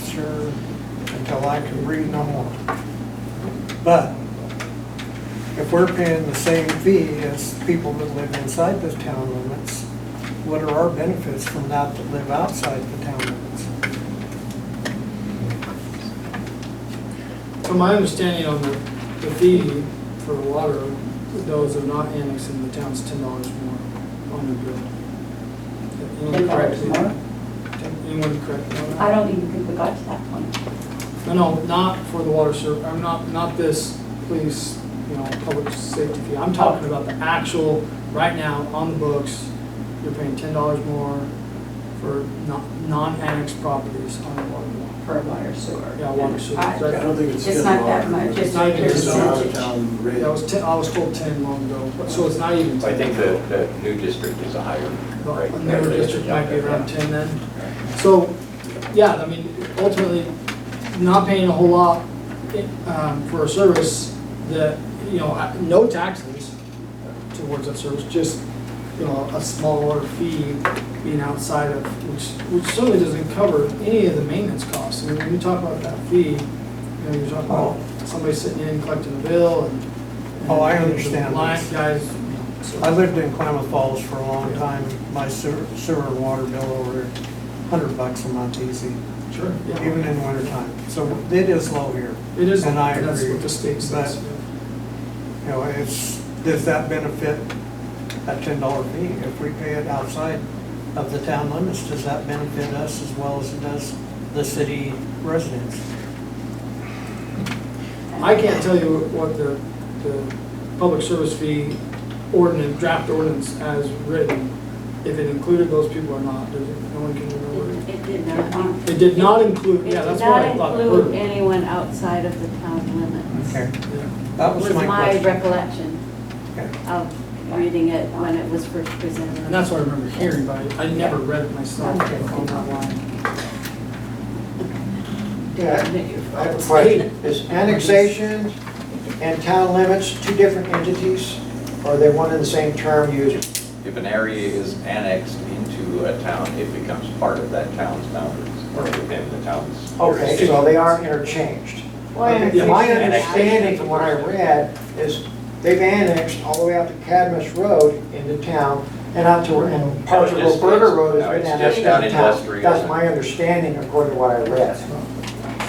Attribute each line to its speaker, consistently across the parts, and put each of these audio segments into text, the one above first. Speaker 1: sure until I can read no more. But if we're paying the same fee as people that live inside the town limits, what are our benefits from that that live outside the town limits?
Speaker 2: From my understanding on the, the fee for water, those who are not annexed in the town's ten dollars more on their bill. Anyone correct me?
Speaker 3: $10 more?
Speaker 2: Anyone correct me on that?
Speaker 3: I don't even think we got to that point.
Speaker 2: No, no, not for the water ser, I'm not, not this police, you know, public safety fee. I'm talking about the actual, right now, on the books, you're paying ten dollars more for non, non-annexed properties on the water bill.
Speaker 3: for water sewer.
Speaker 2: Yeah, water sewer.
Speaker 3: I-
Speaker 2: That-
Speaker 4: I don't think it's.
Speaker 3: It's
Speaker 4: ten
Speaker 3: not that
Speaker 4: dollars.
Speaker 3: much, it's
Speaker 2: It's not even
Speaker 3: pure
Speaker 4: It's not out of
Speaker 3: percentage.
Speaker 4: town rate.
Speaker 2: That was ten, I was told ten long ago, but- so it's not even.
Speaker 5: So I think the, the new district is a higher rate.
Speaker 2: The newer district might be around ten then.
Speaker 5: Right.
Speaker 2: So, yeah, I mean, ultimately, not paying a whole lot um, for a service that, you know, I- no taxes towards that service, just, you know, a smaller fee being outside of, which, which certainly doesn't cover any of the maintenance costs. I mean, when you talk about that fee, you know, you're talking about somebody sitting in collecting a bill and.
Speaker 1: Oh, I
Speaker 2: and the
Speaker 1: understand
Speaker 2: Line
Speaker 1: this.
Speaker 2: guys, you know, so-
Speaker 1: I lived in Klamath Falls for a long time. My sewer, sewer and water bill over hundred bucks a month easy,
Speaker 2: Sure. yeah.
Speaker 1: even in winter time. So it is low here.
Speaker 2: It is,
Speaker 1: And I
Speaker 2: that's
Speaker 1: agree.
Speaker 2: what the state says.
Speaker 1: But, you know, it's, does that benefit that ten dollar fee? If we pay it outside of the town limits, does that benefit us as well as it does the city residents?
Speaker 2: I can't tell you what the, the public service fee ordinance, draft ordinance as written, if it included those people or not, there's, no one can remember.
Speaker 3: It it did not.
Speaker 2: It did not include, yeah, that's what I
Speaker 3: It
Speaker 2: thought.
Speaker 3: did not include anyone outside of the town limits.
Speaker 1: Okay,
Speaker 2: Yeah.
Speaker 1: that was my
Speaker 3: Was my
Speaker 1: question.
Speaker 3: recollection
Speaker 1: Okay.
Speaker 3: of reading it when it was first presented.
Speaker 2: And that's what I remember hearing, but I I never read it myself
Speaker 3: Okay.
Speaker 2: on that line.
Speaker 6: Yeah.
Speaker 3: Admit your
Speaker 6: I have a
Speaker 3: faults.
Speaker 6: question. Is annexation and town limits two different entities? Or are they one and the same term used?
Speaker 5: If an area is annexed into a town, it becomes part of that town's boundaries or within the town's.
Speaker 6: Okay, so they are interchanged.
Speaker 2: Yeah.
Speaker 6: My understanding from what I read is they've annexed all the way out to Cadmus Road into town and out to, and parts of
Speaker 5: No, it just-
Speaker 6: Roberta Road
Speaker 5: no,
Speaker 6: has
Speaker 5: it's
Speaker 6: been
Speaker 5: just
Speaker 6: annexed
Speaker 5: down
Speaker 6: into town.
Speaker 5: industrial.
Speaker 6: That's my understanding according to what I read.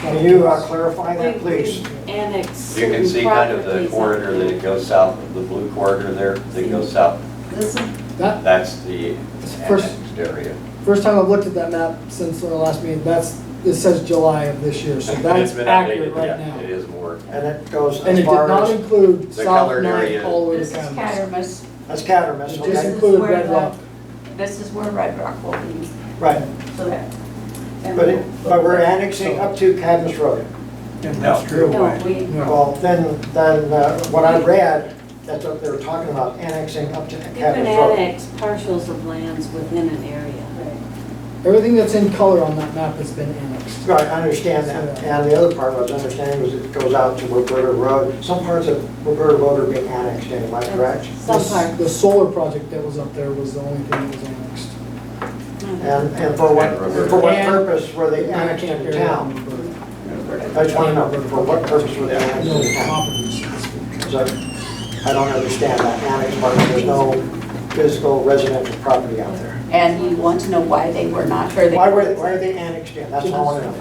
Speaker 6: Can you uh, clarify that, please?
Speaker 3: We Annex
Speaker 5: You can see
Speaker 3: certain
Speaker 5: kind of the
Speaker 3: properties out
Speaker 5: corridor that
Speaker 3: there.
Speaker 5: it goes south, the blue corridor there that goes south.
Speaker 3: This is
Speaker 2: That,
Speaker 5: That's the
Speaker 2: It's first-
Speaker 5: annexed area.
Speaker 2: first time I've looked at that map since our last meeting, that's, it says July of this year, so
Speaker 5: It's
Speaker 2: that's
Speaker 5: been
Speaker 2: accurate
Speaker 5: updated,
Speaker 2: right
Speaker 5: yeah,
Speaker 2: now.
Speaker 5: It is more.
Speaker 6: And it goes
Speaker 2: And it
Speaker 6: as
Speaker 2: did
Speaker 6: far
Speaker 2: not
Speaker 6: as,
Speaker 2: include
Speaker 5: The
Speaker 2: South
Speaker 5: colored
Speaker 2: Nine
Speaker 5: area.
Speaker 2: all the way to
Speaker 3: This is
Speaker 2: Camas.
Speaker 3: Cattermas,
Speaker 6: that's Cadmus,
Speaker 2: It
Speaker 6: okay?
Speaker 2: just
Speaker 3: This is
Speaker 2: included
Speaker 3: where
Speaker 2: Red
Speaker 3: the-
Speaker 2: Rock.
Speaker 3: this is where Red Rock will be,
Speaker 6: Right,
Speaker 3: so that. and
Speaker 6: but it, but we're annexing up to Cadmus Road.
Speaker 1: Industrial
Speaker 3: No,
Speaker 1: way.
Speaker 3: we,
Speaker 6: Well, then, then uh, what I read, that's what they were talking about, annexing up to
Speaker 3: you can
Speaker 6: Cadmus Road.
Speaker 3: annex parcels of lands within an area.
Speaker 2: Everything that's in color on that map has been annexed.
Speaker 6: Right, I understand that, and the other part I was understanding was it goes out to Roberta Road. Some parts of Roberta Road are being annexed in, am I correct?
Speaker 3: Some part.
Speaker 2: The solar project that was up there was the only thing that was annexed.
Speaker 6: And, and for what, for what purpose were they annexed into town? I just want to know, for what purpose were they annexed
Speaker 2: No
Speaker 6: into town?
Speaker 2: properties.
Speaker 6: So, I don't understand that annex part, there's no physical residential property out there.
Speaker 7: And you want to know why they were not, or they.
Speaker 6: Why were, why are they annexed in? That's all I want to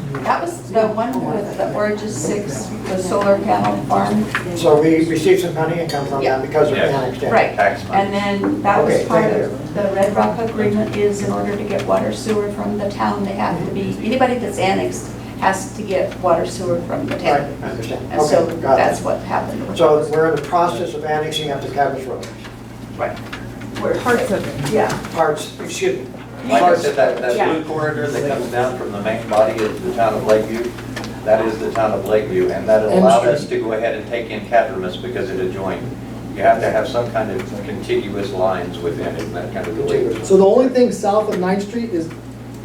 Speaker 6: know.
Speaker 7: Um, That was the one with the Oranges Six, the solar panel farm.
Speaker 6: So we received some money income from them because of
Speaker 5: Yeah.
Speaker 6: annexed in.
Speaker 7: Right.
Speaker 5: Tax money.
Speaker 7: And then that was
Speaker 6: Okay,
Speaker 7: part
Speaker 6: thank
Speaker 7: of, the Red Rock agreement is in order to get water sewer from the town, they have to be, anybody that's annexed has to get water sewer from the
Speaker 6: Right,
Speaker 7: town.
Speaker 6: I understand.
Speaker 7: And so
Speaker 6: Okay, got
Speaker 7: that's
Speaker 6: it.
Speaker 7: what happened. with
Speaker 6: So
Speaker 7: those.
Speaker 6: we're in the process of annexing up to Cabbage Road.
Speaker 7: Right. Parts of it. Yeah.
Speaker 6: Parts, excuse me.
Speaker 5: Like I
Speaker 6: Parts-
Speaker 5: said, that, that
Speaker 7: Yeah.
Speaker 5: blue corridor that comes down from the main body of the town of Lakeview, that is the town of Lakeview, and that
Speaker 2: M
Speaker 5: allowed us
Speaker 2: Street.
Speaker 5: to go ahead and take in Catrimus because it adjoined. You have to have some kind of contiguous lines within it, and that kind of related.
Speaker 2: So the only thing south of Ninth Street is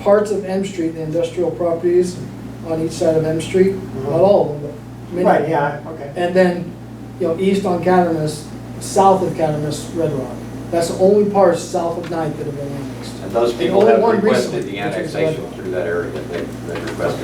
Speaker 2: parts of M Street, the industrial properties on each side of M Street,
Speaker 6: Uh-huh.
Speaker 2: not all of them, but many.
Speaker 6: Right, yeah, okay.
Speaker 2: And then, you know, east on Catamus, south of Catamus, Red Rock. That's the only parts south of Ninth that have been annexed.
Speaker 5: And those
Speaker 2: The
Speaker 5: people
Speaker 2: only
Speaker 5: have
Speaker 2: one
Speaker 5: requested
Speaker 2: recently,
Speaker 5: the
Speaker 2: which is
Speaker 5: annexation through that area, they, they requested